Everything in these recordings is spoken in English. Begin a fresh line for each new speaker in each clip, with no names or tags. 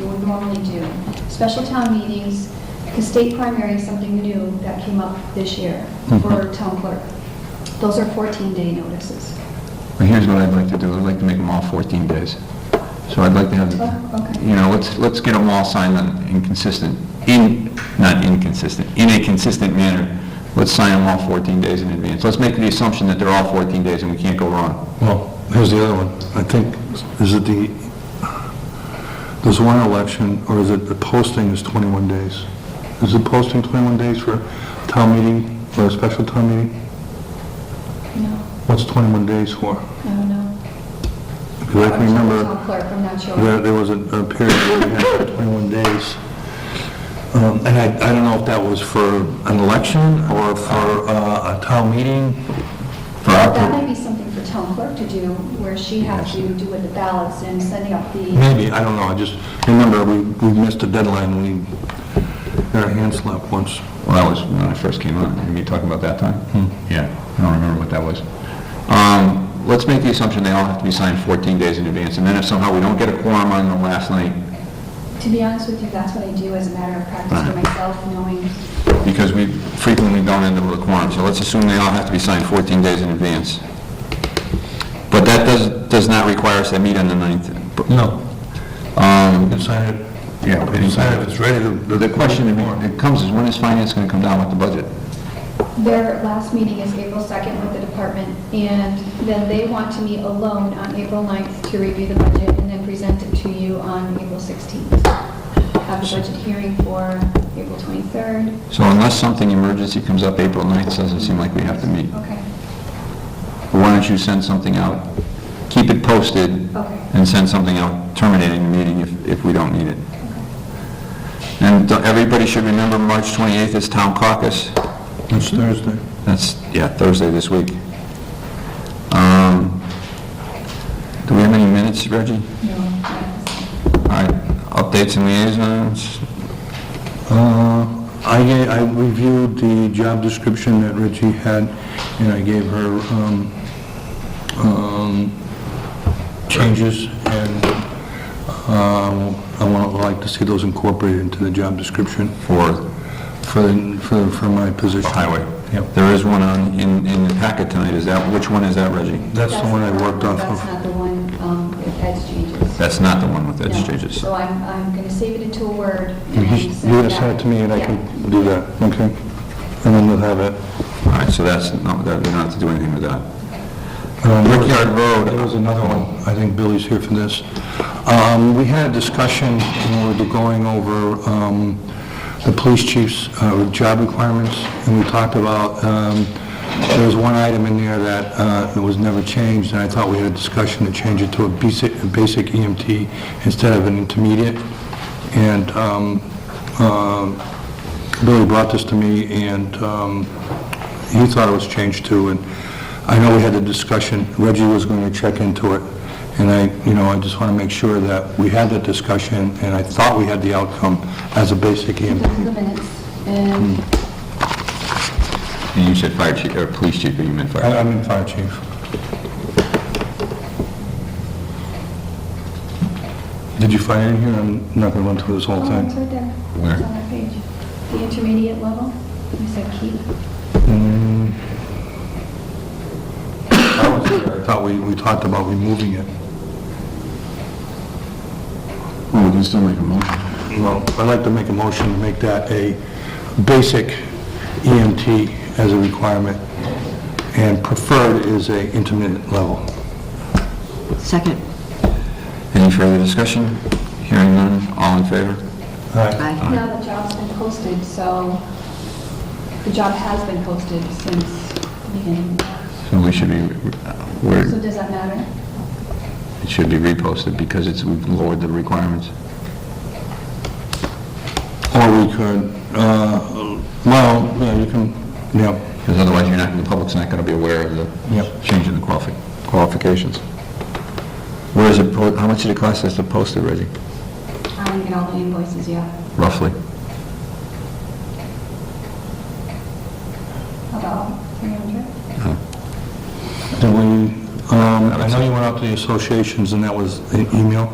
normally do. Special town meetings, because state primary is something new that came up this year
Mm-hmm.
for town clerk. Those are 14-day notices.
Well, here's what I'd like to do, I'd like to make them all 14 days. So I'd like to
Oh,
have,
okay.
you know, let's, let's get them all signed on inconsistent, in, not inconsistent, in a consistent manner. Let's sign them all 14 days in advance. Let's make the assumption that they're all 14 days and we can't go wrong.
Well, here's the other one. I think, is it the, there's one election, or is it the posting is 21 days? Is the posting 21 days for town meeting, for a special town meeting?
No,
What's 21 days for?
I don't know.
Because I can remember
Town clerk, I'm not sure.
there there was a a period where we had 21 days. Um, And I, I don't know if that was for an election or for uh, a town meeting. For our
That might be something for town clerk to do, where she has to do with the ballots and sending out the,
Maybe, I don't know, I just remember we, we missed a deadline, we got our hand slapped once.
Well, that was when I first came on, and you talking about that time? Yeah, I don't remember what that was. Um, Let's make the assumption they all have to be signed 14 days in advance, and then if somehow we don't get a quorum on the last night,
Mm-hmm.
to be honest with you, that's what I do as a matter of practice for myself, knowing
because we frequently don't end up with a quorum, so let's assume they all have to be signed 14 days in advance. But that does, does not require us to meet on the 9th.
No.
Um,
You sign it.
Yeah, we can sign it.
If it's ready to.
The question that comes is, when is finance going to come down with the budget?
Their last meeting is April 2nd with the department, and then they want to meet alone on April 9th to review the budget and then present it to you on April 16th. Have a budget hearing for April 23rd.
So unless something emergency comes up April 9th, doesn't seem like we have to meet.
Okay,
Why don't you send something out? Keep it posted
okay.
and send something out terminating the meeting if, if we don't need it. And everybody should remember, March 28th is town caucus.
It's Thursday.
That's, yeah, Thursday this week. Um, Do we have any minutes, Reggie?
No, yes.
All right, updates and liaisons?
Uh, I, ga- I reviewed the job description that Richie had, and I gave her, um, um, changes, and, um, I want, I'd like to see those incorporated into the job description
For
for, the- for, for my position.
highway.
Yep.
There is one on, in, in the packet tonight, is that, which one is that, Reggie?
That's the one I worked off
That's
of.
not the one um, with edge changes.
That's not the one with edge
No.
changes.
So I'm, I'm going to save it into a word.
You
and
just- you
send
just send it to me and I
Yeah.
can do that, okay? And then we'll have it.
All right, so that's, no, that- you don't have to do anything with that.
Um,
Brickyard Road.
There was another one, I think Billy's here for this. Um, We had a discussion when we were going over um, the police chief's uh, job requirements, and we talked about, um, there was one item in there that uh, was never changed, and I thought we had a discussion to change it to a basic a basic EMT instead of an intermediate. And um, um, Billy brought this to me, and um, he thought it was changed too, and I know we had a discussion, Reggie was going to check into it, and I, you know, I just want to make sure that we had that discussion, and I thought we had the outcome as a basic E
This
EMT.
is the minutes,
Hmm.
and
And you said fire chief, or police chief, but you meant fire.
I- I'm in fire chief. Did you find it in here? I'm not going to run through this
Oh,
whole
it's
thing.
right there.
Where?
It's on that page. The intermediate level, you said keep.
I thought we, we talked about removing it.
Well, we can still make a motion.
Well, I'd like to make a motion to make that a basic EMT as a requirement, and preferred is a intermittent level.
Second.
Any further discussion? Hearing none, all in favor?
Aye.
Now the job's been posted, so the job has been posted since the beginning.
So we should be, uh,
So
we're-
does that matter?
it should be reposted because it's, we've lowered the requirements.
Or we could, uh, well, yeah, you can, yeah,
Because otherwise, you're not, the public's not going to be aware of the
Yep.
change in the qualifi- qualifications. Where is it, po- how much did it cost us to post it, Reggie,
I didn't get all the invoices yet,
roughly?
about 300.
did we, um, I know you went out to the associations, and that was an email,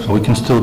so we can still